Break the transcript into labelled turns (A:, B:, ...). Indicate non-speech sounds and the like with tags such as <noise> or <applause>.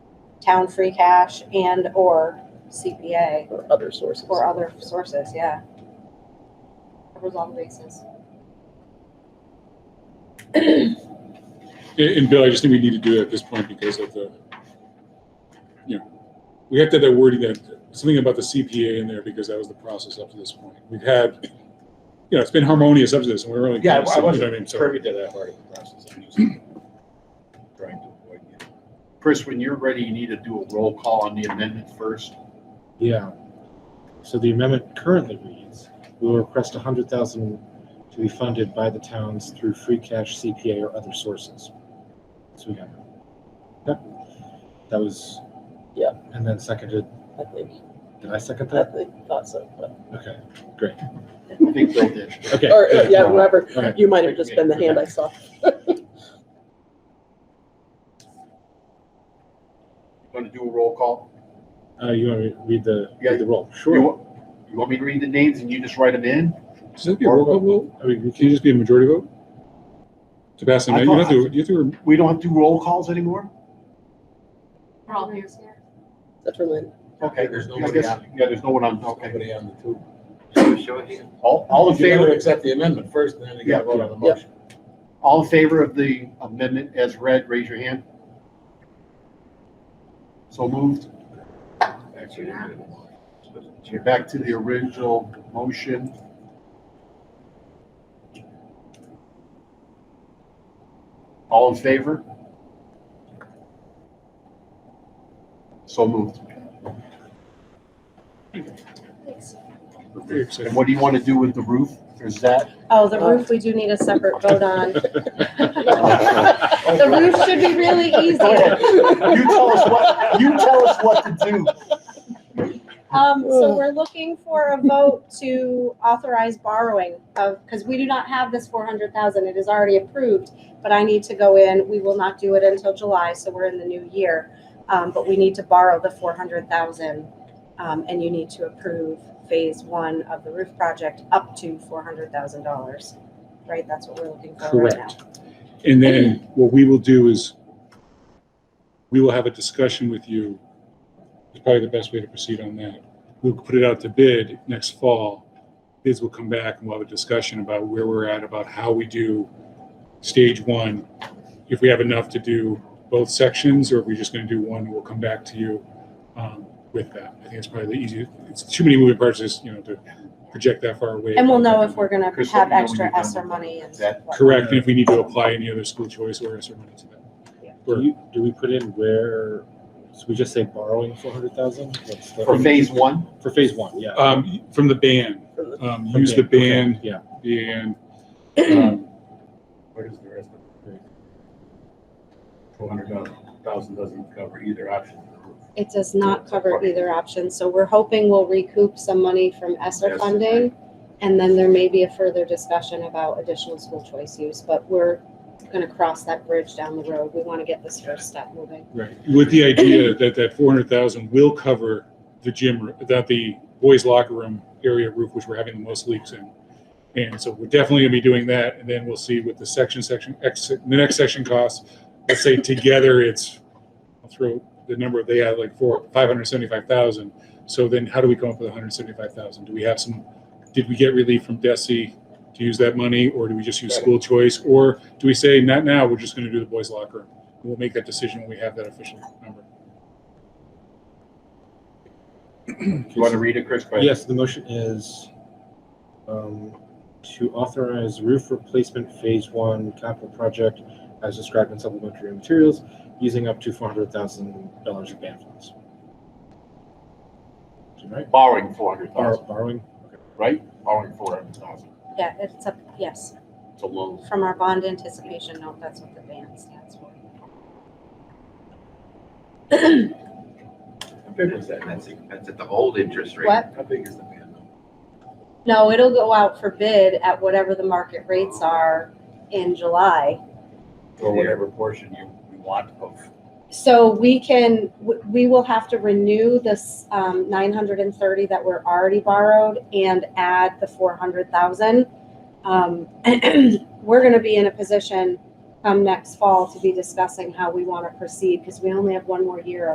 A: town free cash and/or CPA
B: or other sources.
A: or other sources, yeah. Covers all the bases.
C: And, and Bill, I just think we need to do it at this point because of the, you know, we have to have that wording that, something about the CPA in there because that was the process up to this point. We've had, you know, it's been harmonious up to this and we're really.
D: Yeah,
C: you know,
D: I
C: I mean,
D: wasn't
C: so-
D: privy to that part of the process. I'm just Trying to avoid it. Chris, when you're ready, you need to do a roll call on the amendment first.
E: Yeah. So the amendment currently reads, we will request a hundred thousand to be funded by the towns through free cash, CPA, or other sources. So we got. Yep. That was.
B: Yeah.
E: And then seconded,
B: I think,
E: did I second
B: I
E: that?
B: think, thought so. but-
E: Okay,
D: I think Bill did.
E: okay.
B: Or, uh,
E: good.
B: yeah, whatever.
E: All right.
B: You might have just been the hand I saw.
D: Going to do a roll call?
E: Uh, you want me to read the,
D: Yeah.
E: read the roll?
D: You
E: Sure.
D: want- You want me to read the names and you just write them in?
C: Should that be a roll call vote?
E: I mean,
C: Can you
E: we can,
C: just be a majority vote? To pass an
D: I
C: amendment,
D: thought-
C: you have to, you have to,
D: We don't have to do roll calls anymore?
F: We're all here.
B: That's for Lynn.
D: Okay.
G: There's
D: I
G: nobody
D: guess-
G: on.
D: Yeah, there's no one on, okay.
G: Nobody on the two.
D: All, all in
G: If you would
D: favor,
G: accept the amendment first, and then you
D: Yeah.
G: gotta vote on the
B: Yeah.
G: motion.
D: all in favor of the amendment as read, raise your hand. So moved.
G: Actually, you did it.
D: You're back to the original motion. All in favor? So moved. And what do you want to do with the roof? Is that?
A: Oh, the roof, we do need a separate vote on. <laughs> The
D: You
A: roof should be really
D: Go ahead.
A: easy.
D: tell us what, you tell us what to do.
A: Um, so we're looking for a vote to authorize borrowing of, because we do not have this four hundred thousand, it is already approved. But I need to go in, we will not do it until July, so we're in the new year. Um, but we need to borrow the four hundred thousand. Um, and you need to approve phase one of the roof project up to four hundred thousand dollars. Right, that's what we're looking for right now.
E: Correct.
C: and then what we will do is we will have a discussion with you. It's probably the best way to proceed on that. We'll put it out to bid next fall. Bids will come back and we'll have a discussion about where we're at, about how we do stage one. If we have enough to do both sections or if we're just going to do one, we'll come back to you um, with that. I think it's probably the easiest. It's too many moving parts, just, you know, to project that far away.
A: And we'll know if we're gonna
D: Chris, let
A: have
D: me know when
A: extra
D: you're done
A: ESSER
D: with
A: money and.
D: that.
A: what-
C: Correct, and if we need to apply any other school choice or ESSER money to that.
E: do you, do we put in where, so we just say borrowing four hundred thousand?
D: For phase one,
E: For phase one, yeah.
C: Um, from the ban, um, use the
E: Okay, okay,
C: ban,
E: Yeah.
C: and,
A: Uh,
C: um,
G: Where does the rest of it? Four hundred thousand doesn't cover either option.
A: It does not cover either option, so we're hoping we'll recoup some money from ESSER
G: Yes.
A: funding. And then there may be a further discussion about additional school choice use, but we're gonna cross that bridge down the road. We wanna get this first step moving.
C: right, with the idea that that four hundred thousand will cover the gym, r- that the boys locker room area roof, which we're having the most leaks in. And so we're definitely gonna be doing that, and then we'll see what the section, section, ex, the next section costs. Let's say together it's, I'll throw the number, they had like four, five hundred seventy-five thousand. So then how do we come up with hundred seventy-five thousand? Do we have some, did we get relief from DESI to use that money, or do we just use school choice? Or do we say, not now, we're just gonna do the boys locker room? We'll make that decision when we have that official number.
D: you want to read it, Chris? Go ahead.
E: Yes, the motion is um, to authorize roof replacement phase one capital project as described in supplementary materials, using up to four hundred thousand dollars of band funds. Is that Right,
D: Borrowing four hundred
E: Bor-
D: thousand,
E: borrowing,
D: right? Borrowing four hundred thousand.
A: Yeah, it's a, yes,
D: It's a loan.
A: from our bond anticipation note, that's what the band stands for.
G: How big was that?
H: That's, that's at the old interest rate.
A: What?
G: How big is the ban?
A: No, it'll go out for bid at whatever the market rates are in July.
G: Or whatever portion you you want of.
A: So we can, w- we will have to renew this um, 930 that were already borrowed and add the 400,000. Um, <clears throat> We're going to be in a um, position come next fall to be discussing how we want to proceed because we only have one more year